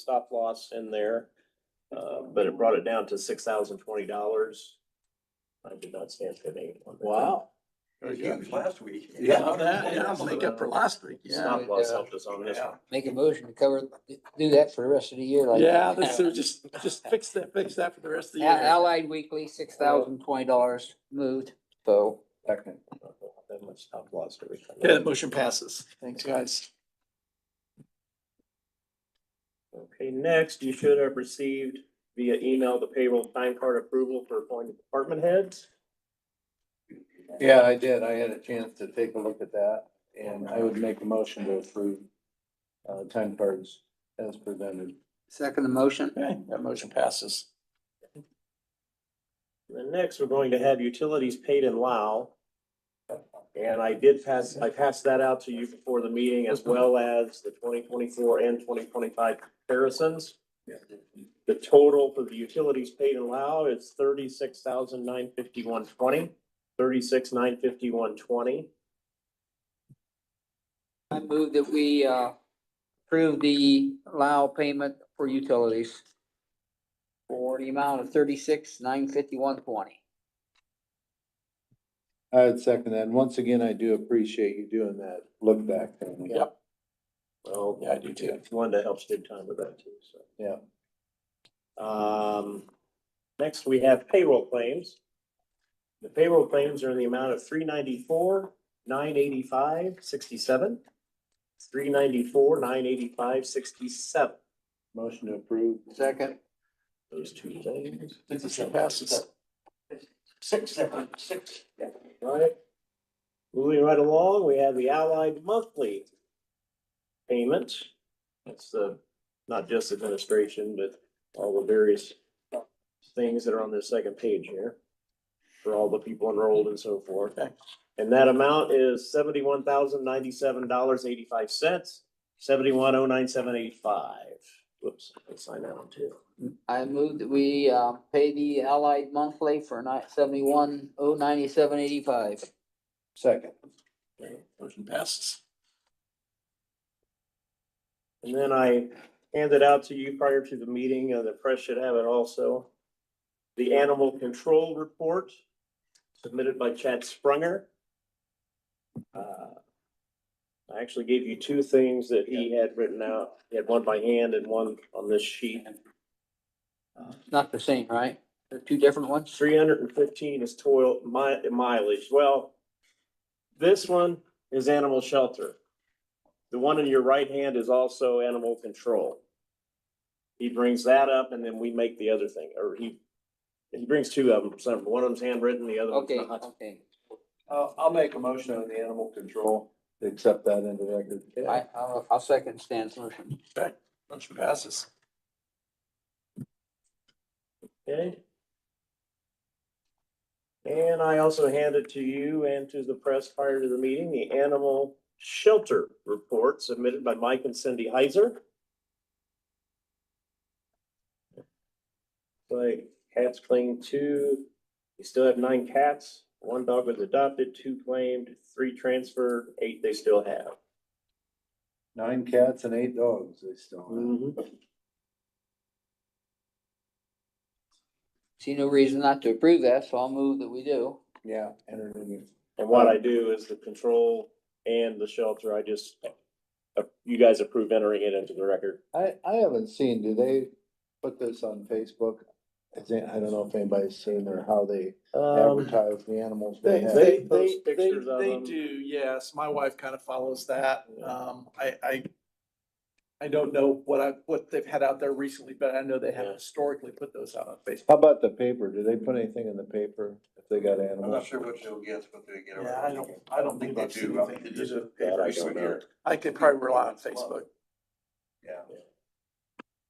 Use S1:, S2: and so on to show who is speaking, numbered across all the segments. S1: stop loss in there. Uh, but
S2: Mm.
S1: it brought it down to six thousand twenty dollars. I did not stand for any.
S2: Wow.
S3: It was huge last week.
S2: Yeah, that, yeah, I'll make up for last week, yeah.
S1: Stop loss helped us on this one.
S4: Make a motion to cover, do that for the rest of the year like.
S2: Yeah, this is just, just fix that, fix that for the rest of the
S4: A-
S2: year.
S4: Allied Weekly, six thousand twenty dollars moved, so.
S1: Second. That much stop loss to recover.
S2: Yeah, the motion passes. Thanks, guys.
S1: Okay, next, you should have received via email the payroll time card approval for appointed department heads.
S5: Yeah, I did. I had a chance to take a look at that and I would make a motion to approve uh, time cards as presented.
S4: Second the motion?
S2: Okay, that motion passes.
S1: And next, we're going to have utilities paid in Lao. And I did pass, I passed that out to you before the meeting as well as the twenty twenty-four and twenty twenty-five comparisons. The total for the utilities paid in Lao is thirty-six thousand nine fifty-one twenty, thirty-six nine fifty-one twenty.
S4: I move that we, uh, approve the allow payment for utilities for the amount of thirty-six, nine fifty-one, twenty.
S5: I would second that. And once again, I do appreciate you doing that look back. Tony.
S2: Yep.
S1: Well,
S2: Yeah, I do too.
S1: Linda helps big time with that too, so.
S5: Yeah.
S1: Um, next we have payroll claims. The payroll claims are in the amount of three ninety-four, nine eighty-five, sixty-seven. Three ninety-four, nine eighty-five, sixty-seven.
S5: Motion to approve.
S4: Second.
S1: Those two things.
S2: Motion passes.
S3: Six, seven, six.
S1: Alright. Moving right along, we have the Allied Monthly payment. That's the, not just administration, but all the various things that are on the second page here for all the people enrolled and so forth. And that amount is seventy-one thousand ninety-seven dollars eighty-five cents, seventy-one oh nine seven eighty-five. Whoops, I signed that one too.
S4: I move that we, uh, pay the Allied monthly for nine, seventy-one, oh, ninety-seven, eighty-five.
S5: Second.
S2: Motion passes.
S1: And then I handed out to you prior to the meeting, uh, the press should have it also. The animal control report submitted by Chad Sprunger. Uh, I actually gave you two things that he had written out. He had one by hand and one on this sheet.
S4: Not the same, right? They're two different ones?
S1: Three hundred and fifteen is toil mi- mileage. Well, this one is animal shelter. The one in your right hand is also animal control. He brings that up and then we make the other thing, or he, he brings two of them, some, one of them's handwritten, the other one's
S4: Okay,
S1: not.
S4: okay.
S5: I'll, I'll make a motion on the animal control. Accept that into record.
S4: I, I'll, I'll second Stan's motion.
S2: Okay, motion passes.
S1: Okay. And I also handed to you and to the press prior to the meeting, the animal shelter report submitted by Mike and Cindy Heiser. Like cats claimed two, you still have nine cats, one dog was adopted, two claimed, three transferred, eight they still have.
S5: Nine cats and eight dogs they still
S4: Mm.
S5: have.
S4: See no reason not to approve that, so I'll move that we do.
S5: Yeah. entertaining.
S1: And what I do is the control and the shelter, I just, uh, you guys approve entering it into the record.
S5: I, I haven't seen, do they put this on Facebook? I think, I don't know if anybody's seen or how they
S1: Um,
S5: advertise the animals they
S2: They,
S5: have.
S2: they, they,
S1: Post
S2: they,
S1: pictures of
S2: they
S1: them.
S2: do, yes. My wife kind of follows that. Um, I, I. I don't know what I, what they've had out there recently, but I know they have
S1: Yeah.
S2: historically put those out on Facebook.
S5: How about the paper? Do they put anything in the paper if they got
S3: I'm not
S5: animals?
S3: sure what they'll get, but they get.
S2: Yeah, I don't, I don't think they
S3: Think they do.
S2: do. I think they do.
S1: That I don't know.
S2: I could probably rely on Facebook.
S3: Yeah.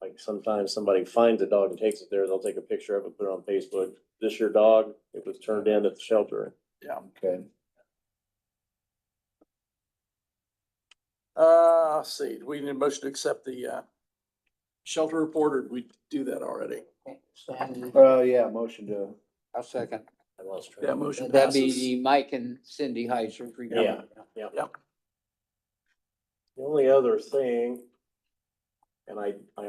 S1: Like sometimes somebody finds a dog and takes it there, they'll take a picture of it, put it on Facebook. This your dog, it was turned in at the shelter.
S5: Okay,
S2: Uh, let's see, do we need a motion to accept the, uh, shelter report or did we do that already?
S3: Mm-hmm.
S4: Stan,
S5: well, yeah, motion to,
S4: I'll second.
S1: I lost track.
S2: That motion
S4: That'd be
S2: passes.
S4: the Mike and Cindy Heiser. report.
S1: Yeah.
S2: Yep.
S1: The only other thing, and I, I